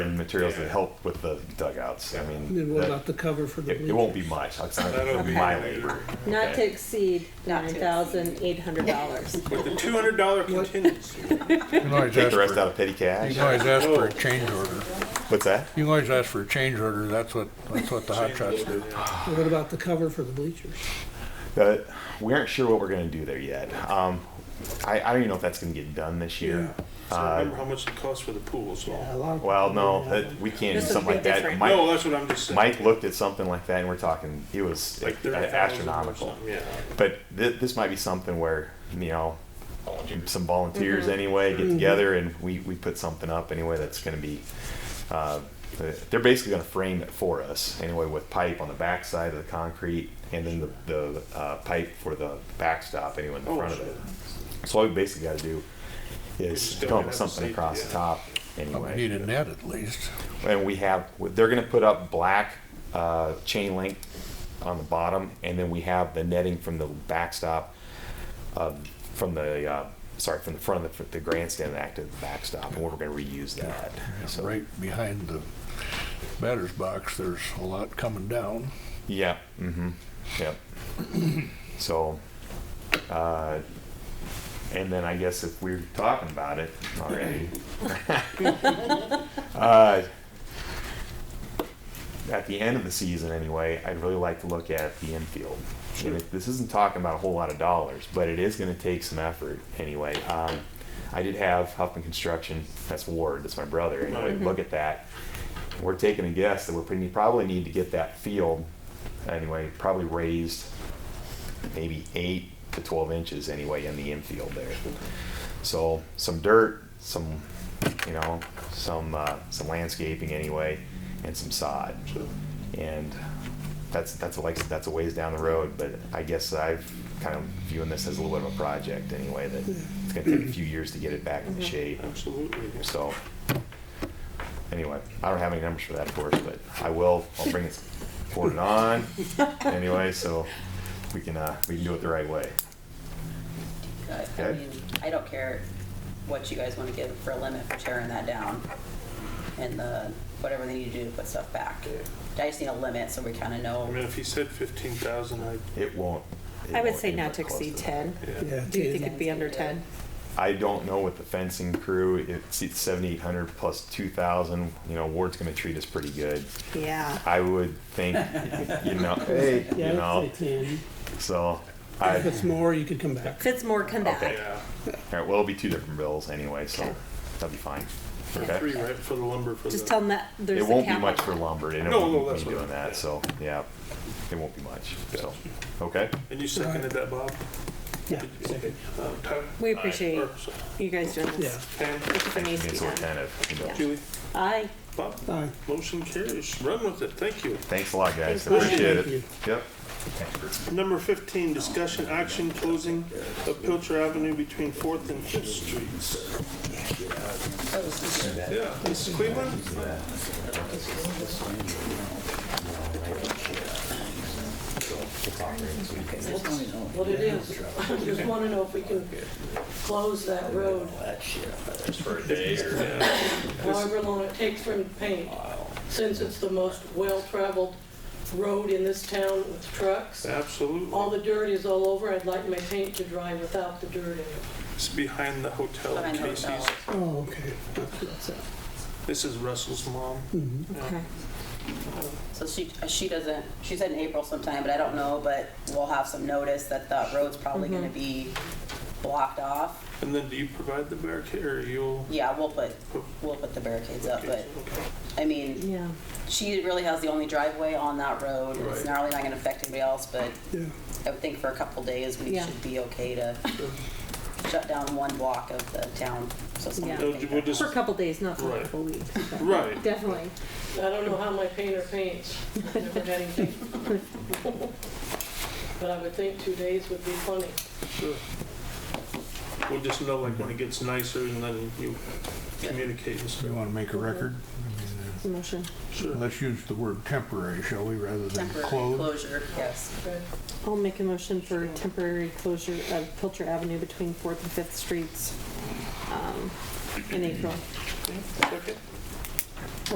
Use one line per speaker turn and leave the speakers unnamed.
and materials
Yeah.
that help with the dugouts. I mean,
And then what
that-
about the cover for the
it,
bleachers?
it won't be much. It's not
That'll be
my
later.
labor.
Not to
okay?
exceed
Not to
nine
exceed.
thousand eight hundred dollars.
With the two hundred dollar contingency.
You can always
Take
ask
the rest
for,
out of petty
you
cash.
can always ask for a change order.
What's that?
You can always ask for a change order, that's what, that's what the hot shots do.
And What about the cover for the bleachers?
Uh, we aren't sure what we're going to do there yet. Um, I, I don't even know if that's going to get done this year.
So
Uh,
remember how much it costs for the pools.
Yeah, a
No,
lot of
well, no,
people don't have
that, we can't do
This
something
would
like
be
that.
different.
Mike,
that's what I'm just saying.
Mike looked at something like that, and we're talking. It was
Like
uh,
thirty thousand
astronomical.
Yeah.
But th- this might be something where you know some volunteers
Mm-hmm.
anyway get together and we, we put something up anyway that's going to be uh, they're basically going to frame it for us anyway with pipe on the back side of the concrete and then the, the uh, pipe for the backstop anyway in the
Oh,
front
sure.
of it. So all we basically got to do is
just don't
come up
have
with
the
something
safety,
across
yeah.
the top
But
anyway
We need a net at least.
and we have they're going to put up black uh, chain link on the bottom and then we have the netting from the backstop uh, from the uh, sorry from the front of the, the grandstand back to the backstop and we're going to reuse that so
Right behind the batter's box, there's a lot coming down.
yeah mm-hmm yep so uh, and then i guess if we're talking about it already uh, at the end of the season anyway, I'd really like to look at the infield. And it, this isn't talking about a whole lot of dollars, but it is going to take some effort anyway. Um, I did have Huffman Construction, that's Ward, that's my brother, anyway, look at that. We're taking a guess that we're pretty, probably need to get that field anyway, probably raised maybe eight to 12 inches anyway in the infield there. So some dirt, some, you know, some, uh, some landscaping anyway, and some sod. And that's, that's like, that's a ways down the road, but I guess I've kind of viewing this as a little bit of a project anyway, that it's gonna take a few years to get it back in shape.
Absolutely. yes.
So, anyway, I don't have any numbers for that, of course, but I will, I'll bring it forward on anyway, so we can, uh, we can do it the right way.
But, I
Okay.
mean, I don't care what you guys want to give for a limit for tearing that down and the, whatever they need to do to put stuff back. I just need a limit so we kind of
I mean,
know.
if he said fifteen thousand, I,
It won't. it
I would
won't
say
be
not to
close
exceed
that.
ten.
yeah.
Yeah,
Do you
it-
think it'd be under ten?
I don't know with the fencing crew, it's it's 7,800 plus 2,000, you know, Ward's gonna treat us pretty good.
Yeah.
I would think, you know, hey, you
Yeah, I'd
know,
say ten.
so,
If
I,
it's more, you could come back.
If it's more, come back.
Okay.
Yeah.
alright, well, it'll be two different bills anyway, so that'll be fine.
Three,
Okay?
right, for the lumber for the.
Just tell them that there's
It
a
won't be
cap.
much for lumber, and it
No, no,
won't
that's
be
what
doing
I-
that, so, yeah, it won't be much, so, okay?
And you seconded that, Bob?
Yeah,
Uh, Tyler?
We appreciate
Or, sorry,
you guys doing
yeah.
this.
Pam,
If it needs to be
So we're
done.
kind of, you know,
Julie,
Aye.
Bob,
Aye.
motion carries. Run with it. Thank you.
thanks a lot, guys,
Thank you.
appreciate
Thank
it.
you.
Yep.
Number fifteen, discussion action closing of Pilcher Avenue between Fourth and Fifth Streets. Yeah, this is Cleveland?
what it is. I just want to know if we can close that road, however long it takes for him to paint. Since it's the most well-traveled road in this town with trucks, all
Absolutely.
the dirt is all over. I'd like my paint to dry without the dirt in it.
It's behind the hotel
Behind
in
the
Casey's.
hotel.
Oh, okay. That's- that's it.
This is Russell's mom.
Okay.
So she, she doesn't, she said in April sometime, but I don't know, but we'll have some notice that the road's probably going to
Mm-hmm.
be blocked off.
And then do you provide the barricade or you'll?
Yeah, we'll put, we'll put the barricades up, but,
Okay.
I mean,
Yeah.
she really has the only driveway on that road. It's
Right.
not really not gonna affect anybody else, but
Yeah.
I would think for a couple days, we
Yeah.
should be okay to shut down one block of the town. So it's
Yeah.
not
We'll- We'll just,
For a couple days, not for a
Right.
couple weeks. but
right.
Definitely.
I don't know how my painter paints. I've never had him paint. But I would think two days would be plenty.
Sure. We'll just know like when it gets nicer and then you communicate and
Do you
stuff.
wanna make a record?
Motion.
Sure.
Let's use the word temporary, shall we, rather than
temporary
close?
closure, yes.
I'll make a motion for temporary closure of Pilcher Avenue between Fourth and Fifth Streets um, in April.
Second.